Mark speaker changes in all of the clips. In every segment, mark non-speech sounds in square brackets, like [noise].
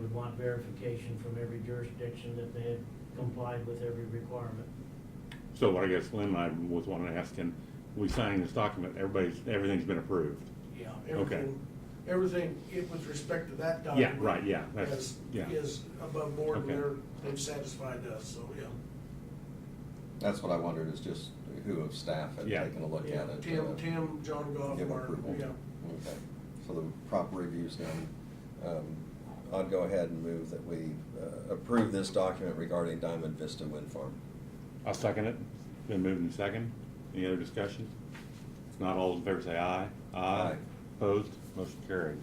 Speaker 1: would want verification from every jurisdiction that they had complied with every requirement.
Speaker 2: So what I guess Lynn and I was wanting to ask him, we signing this document, everybody's, everything's been approved.
Speaker 3: Yeah,
Speaker 2: Okay.
Speaker 3: everything, everything it with respect to that
Speaker 2: Yeah,
Speaker 3: document.
Speaker 2: right, yeah, that's,
Speaker 3: Is,
Speaker 2: yeah.
Speaker 3: is above board and
Speaker 2: Okay.
Speaker 3: they're, they've satisfied us, so, yeah.
Speaker 4: That's what I wondered, is just who of staff had
Speaker 2: Yeah.
Speaker 4: taken a look at it.
Speaker 3: Tim,
Speaker 4: uh,
Speaker 3: Tim, John Goff,
Speaker 4: Give
Speaker 3: Mark,
Speaker 4: approval.
Speaker 3: yeah.
Speaker 4: Okay, so the proper review's done. Um, I'd go ahead and move that we uh, approve this document regarding Diamond Vista Wind Farm.
Speaker 2: I'll second it. Been moved and second. Any other discussion? If not, all those in favor say aye.
Speaker 4: Aye.
Speaker 2: Opposed? Motion carried.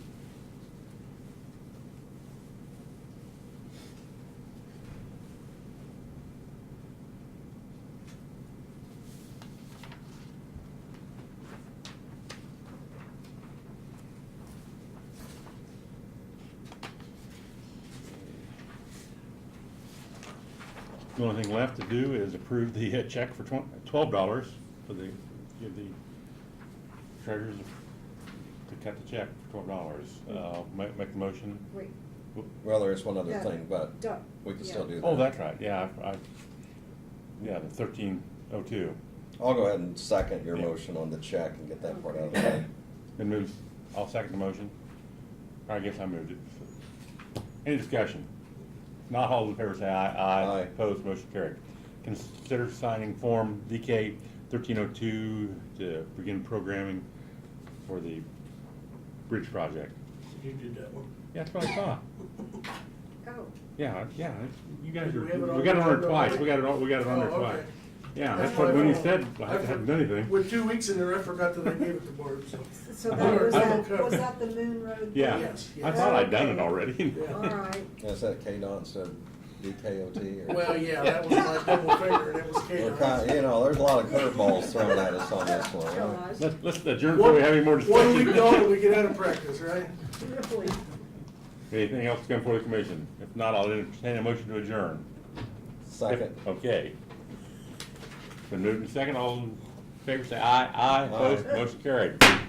Speaker 2: The only thing left to do is approve the uh, check for twen- twelve dollars for the, give the treasurers to cut the check for twelve dollars. Uh, make, make the motion.
Speaker 5: Wait.
Speaker 4: Well, there is one other
Speaker 5: Yeah.
Speaker 4: thing, but
Speaker 5: Done.
Speaker 4: we can still
Speaker 5: Yeah.
Speaker 4: do that.
Speaker 2: Oh, that's right, yeah, I, I- yeah, the thirteen oh two.
Speaker 4: I'll go ahead and second your
Speaker 2: Yeah.
Speaker 4: motion on the check and get that part out of the way.
Speaker 2: Then moves, I'll second the motion. I guess I moved it. Any discussion? Not all in favor say aye.
Speaker 4: Aye.
Speaker 2: Opposed, motion carried. Consider signing Form DK thirteen oh two to begin programming for the bridge project.
Speaker 3: You did that one.
Speaker 2: Yeah, that's what I thought.
Speaker 5: Oh,
Speaker 2: Yeah, yeah, you guys are,
Speaker 3: We have it on
Speaker 2: we got it on there
Speaker 3: the-
Speaker 2: twice, we got it on, we got it on there
Speaker 3: Oh,
Speaker 2: twice.
Speaker 3: okay.
Speaker 2: Yeah,
Speaker 3: That's
Speaker 2: that's what,
Speaker 3: what I
Speaker 2: when you
Speaker 3: thought.
Speaker 2: said, I
Speaker 3: I
Speaker 2: haven't
Speaker 3: for-
Speaker 2: done anything.
Speaker 3: With two weeks in there, I forgot that I gave it to Barb, so.
Speaker 5: so
Speaker 2: I
Speaker 5: that was
Speaker 2: thought-
Speaker 5: that, was that the Moon Road?
Speaker 2: Yeah,
Speaker 3: Yes,
Speaker 2: I
Speaker 3: yes.
Speaker 2: thought I'd done it already.
Speaker 3: Yeah.
Speaker 2: [laughs]
Speaker 5: All right,
Speaker 4: Is that KDOT instead of DKOT? or-
Speaker 3: Well, yeah, that was my double finger and it was
Speaker 4: We're
Speaker 3: Kate.
Speaker 4: kind- You know, there's a lot of curveballs thrown at us on this one. huh?
Speaker 5: gosh,
Speaker 2: Let's, let's adjourn before we have any more
Speaker 3: One week
Speaker 2: [laughs]
Speaker 3: gone and
Speaker 2: discussion.
Speaker 3: we get out of practice, right?
Speaker 5: really.
Speaker 2: Anything else to come before the commission? If not, I'll entertain a motion to adjourn.
Speaker 4: Second.
Speaker 2: Okay. Been moved and second, all in favor say aye, aye, opposed,
Speaker 4: Aye.
Speaker 2: motion carried.